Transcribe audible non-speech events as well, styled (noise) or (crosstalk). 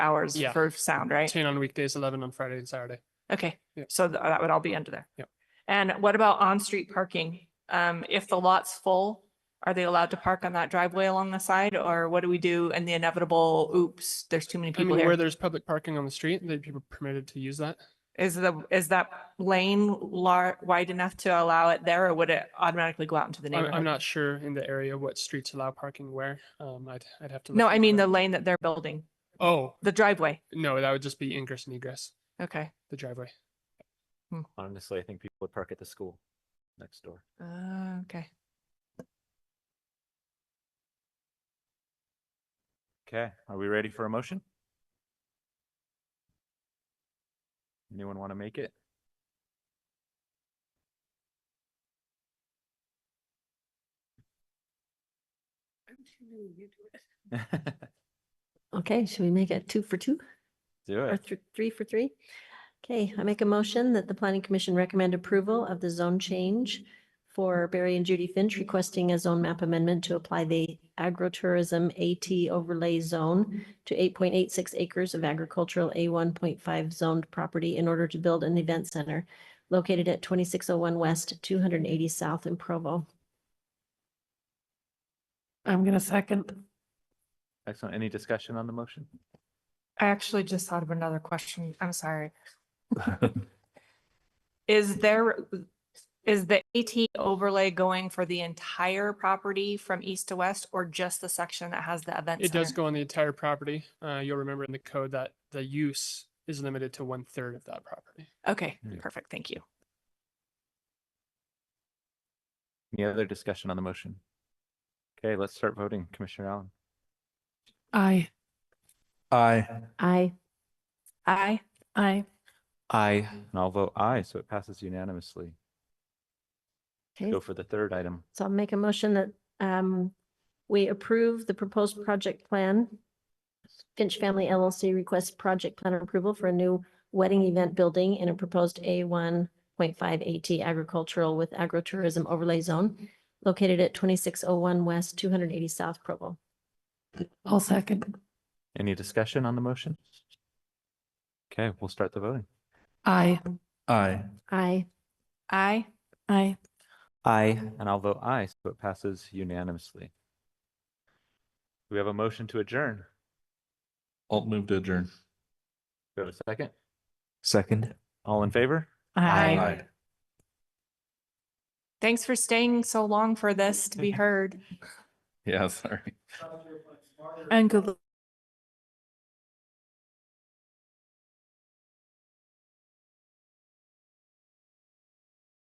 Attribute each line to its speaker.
Speaker 1: hours
Speaker 2: Yeah.
Speaker 1: for sound, right?
Speaker 2: ten on weekdays, eleven on Friday and Saturday.
Speaker 1: Okay,
Speaker 2: Yeah.
Speaker 1: so th- that would all be under there.
Speaker 2: Yeah.
Speaker 1: And what about on-street parking? Um, if the lot's full, are they allowed to park on that driveway along the side or what do we do in the inevitable, oops, there's too many
Speaker 2: I
Speaker 1: people
Speaker 2: mean, where
Speaker 1: here?
Speaker 2: there's public parking on the street, they'd be permitted to use that.
Speaker 1: Is the, is that lane lar- wide enough to allow it there or would it automatically go out into the
Speaker 2: I'm, I'm
Speaker 1: neighborhood?
Speaker 2: not sure in the area what streets allow parking where. Um, I'd, I'd have to. look
Speaker 1: No, I
Speaker 2: into
Speaker 1: mean the
Speaker 2: that.
Speaker 1: lane that they're building,
Speaker 2: Oh,
Speaker 1: the driveway.
Speaker 2: no, that would just be ingress and egress,
Speaker 1: Okay.
Speaker 2: the driveway.
Speaker 3: Honestly, I think people would park at the school next door.
Speaker 1: Uh, okay.
Speaker 3: Okay, are we ready for a motion? Anyone want to make it? (laughs)
Speaker 4: Okay, should we make it two for two
Speaker 3: Do
Speaker 4: or
Speaker 3: it.
Speaker 4: thr- three for three? Okay, I make a motion that the planning commission recommend approval of the zone change for Barry and Judy Finch requesting a zone map amendment to apply the agritourism AT overlay zone to eight point eight six acres of agricultural A one point five zoned property in order to build an event center located at twenty-six oh one west, two hundred and eighty south in Provo.
Speaker 5: I'm gonna second.
Speaker 3: Excellent. Any discussion on the motion?
Speaker 1: I actually just thought of another question. I'm sorry. Is there, is the AT overlay going for the entire property from east to west or just the section that has the event
Speaker 2: It does
Speaker 1: center?
Speaker 2: go on the entire property. Uh, you'll remember in the code that the use is limited to one third of that property.
Speaker 1: Okay,
Speaker 3: Yeah.
Speaker 1: perfect. Thank you.
Speaker 3: Any other discussion on the motion? Okay, let's start voting. Commissioner Allen.
Speaker 5: I.
Speaker 3: Aye.
Speaker 4: I,
Speaker 1: Aye.
Speaker 5: I.
Speaker 3: Aye. And I'll vote aye, so it passes unanimously.
Speaker 4: okay,
Speaker 3: Go for the third item.
Speaker 4: So I'll make a motion that um, we approve the proposed project plan. Finch Family LLC requests project plan approval for a new wedding event building in a proposed A one point five AT agricultural with agritourism overlay zone located at twenty-six oh one west, two hundred and eighty south Provo.
Speaker 5: I'll second.
Speaker 3: Any discussion on the motion? Okay, we'll start the voting.
Speaker 5: I.
Speaker 3: Aye.
Speaker 4: I,
Speaker 1: Aye.
Speaker 5: I.
Speaker 3: Aye. And I'll vote aye, so it passes unanimously. We have a motion to adjourn.
Speaker 6: Alt move to adjourn.
Speaker 3: Go to second.
Speaker 6: Second.
Speaker 3: All in favor?
Speaker 1: Aye. Thanks for staying so long for this to be heard.
Speaker 6: Yeah, sorry.
Speaker 5: And good